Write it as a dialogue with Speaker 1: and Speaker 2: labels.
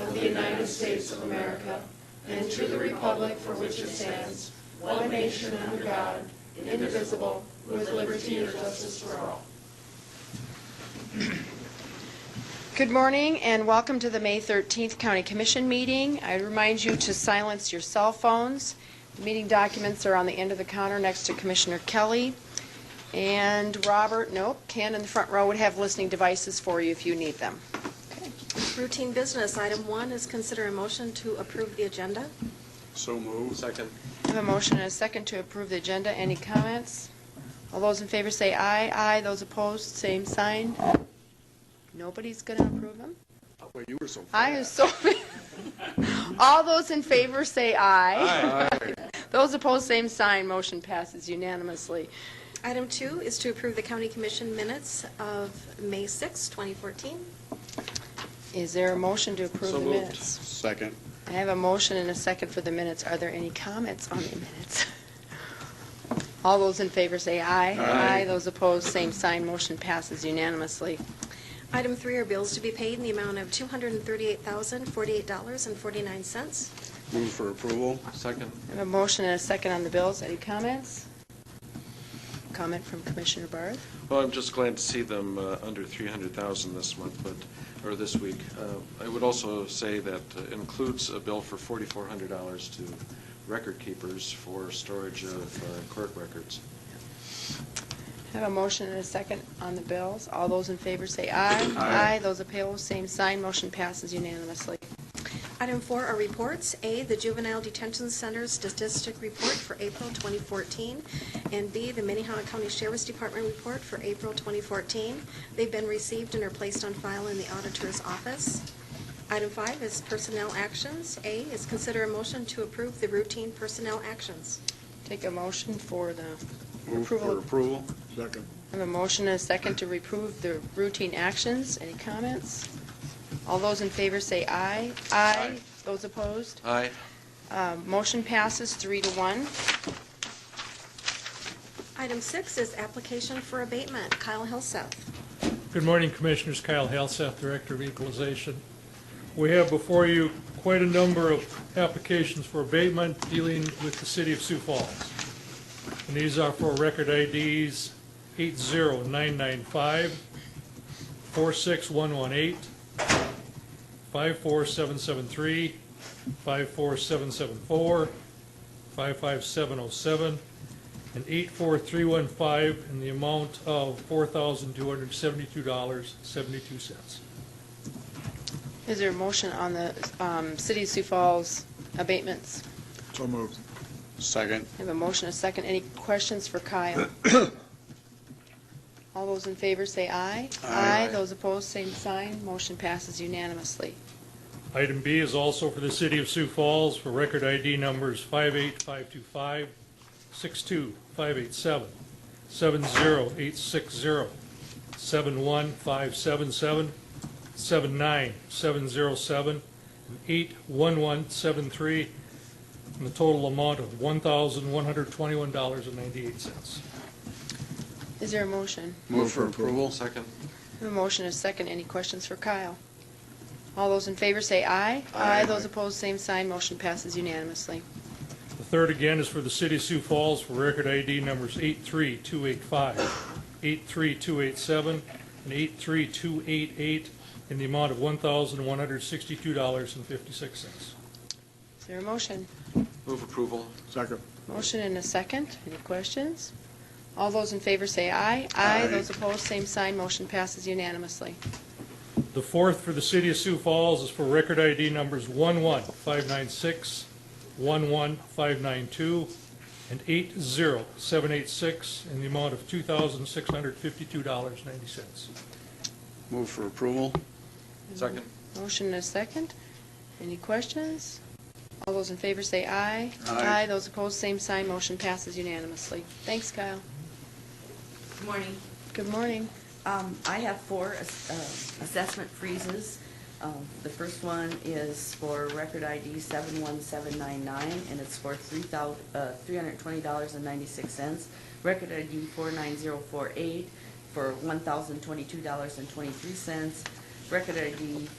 Speaker 1: of the United States of America and to the republic for which it stands, one nation under God, indivisible, with liberty and justice for all.
Speaker 2: Good morning and welcome to the May 13th County Commission meeting. I remind you to silence your cell phones. The meeting documents are on the end of the counter next to Commissioner Kelly. And Robert, nope, Ken in the front row would have listening devices for you if you need them.
Speaker 3: Routine business. Item one is consider a motion to approve the agenda.
Speaker 4: So moved. Second.
Speaker 2: I have a motion and a second to approve the agenda. Any comments? All those in favor say aye. Aye. Those opposed, same sign. Nobody's going to approve them?
Speaker 4: Well, you were so fast.
Speaker 2: I am so, all those in favor say aye. Those opposed, same sign, motion passes unanimously.
Speaker 3: Item two is to approve the county commission minutes of May 6, 2014.
Speaker 2: Is there a motion to approve
Speaker 4: So
Speaker 2: the
Speaker 4: moved.
Speaker 2: minutes?
Speaker 4: Second.
Speaker 2: I have a motion and a second for the minutes. Are there any comments on the minutes? All those in favor say aye.
Speaker 4: Aye.
Speaker 2: Those opposed, same sign, motion passes unanimously.
Speaker 3: Item three are bills to be paid in the amount of $238,048.49.
Speaker 4: Move for approval.
Speaker 5: Second,
Speaker 2: I have a motion and a second on the bills. Any comments? Comment from Commissioner Barth?
Speaker 5: well, I'm just glad to see them uh, under 300,000 this month, but, or this week. Uh, I would also say that uh, includes a bill for $4,400 to record keepers for storage of uh, court records.
Speaker 2: I Have a motion and a second on the bills. All those in favor say aye. Aye. Those opposed, same sign. Motion passes unanimously.
Speaker 3: Item four are reports. A, the Juvenile Detention Center's statistic report for April 2014, and B, the Minnehaha County Sheriff's Department report for April 2014. They've been received and are placed on file in the auditor's office. Item five is personnel actions. A is consider a motion to approve the routine personnel actions.
Speaker 2: Take a motion for the
Speaker 4: Move for
Speaker 2: approval.
Speaker 4: approval. Second.
Speaker 2: I Have a motion and a second to approve the routine actions. Any comments? All those in favor say aye. Aye. Those opposed?
Speaker 5: Aye.
Speaker 2: Uh, Motion passes three to one.
Speaker 3: Item six is application for abatement. Kyle Hillseth.
Speaker 6: Good morning, Commissioners. Kyle Halseth, Director of Equalization. We have before you quite a number of applications for abatement dealing with the city of Sioux Falls. And these are for record IDs 80995, 46118, 54773, 54774, 55707, and 84315 in the amount of $4,272.72.
Speaker 2: Is there a motion on the um, City of Sioux Falls abatements?
Speaker 4: So moved. Second.
Speaker 2: I Have a motion and a second. Any questions for Kyle? All those in favor say aye.
Speaker 4: Aye.
Speaker 2: Those opposed, same sign. Motion passes unanimously.
Speaker 6: Item B is also for the City of Sioux Falls for record ID numbers 58525, 62587, 70860, 71577, 79707, and 81173, in the total amount of $1,121.98.
Speaker 2: Is there a motion?
Speaker 4: Move for approval.
Speaker 5: Second,
Speaker 2: I have A motion and a second. Any questions for Kyle? All those in favor say aye.
Speaker 4: Aye.
Speaker 2: Those opposed, same sign. Motion passes unanimously.
Speaker 6: The third again is for the city of Sioux Falls for record ID numbers 83285, 83287, and 83288 in the amount of $1,162.56.
Speaker 2: Is there a motion?
Speaker 5: move approval.
Speaker 4: Second.
Speaker 2: Motion and a second. Any questions? All those in favor say aye.
Speaker 4: Aye.
Speaker 2: Those opposed, same sign. Motion passes unanimously.
Speaker 6: The fourth for the city of Sioux Falls is for record ID numbers 11596, 11592, and 80786 in the amount of $2,652.90.
Speaker 4: Move for approval.
Speaker 5: Second,
Speaker 2: Motion and a second. Any questions? All those in favor say aye.
Speaker 4: Aye.
Speaker 2: Those opposed, same sign. Motion passes unanimously. Thanks, Kyle.
Speaker 7: Good morning.
Speaker 2: Good morning.
Speaker 7: Um, I have four ass- uh, assessment freezes. Um, The first one is for record ID 71799, and it's for three thou- uh, $320.96. Record ID 49048 for $1,022.23. Record ID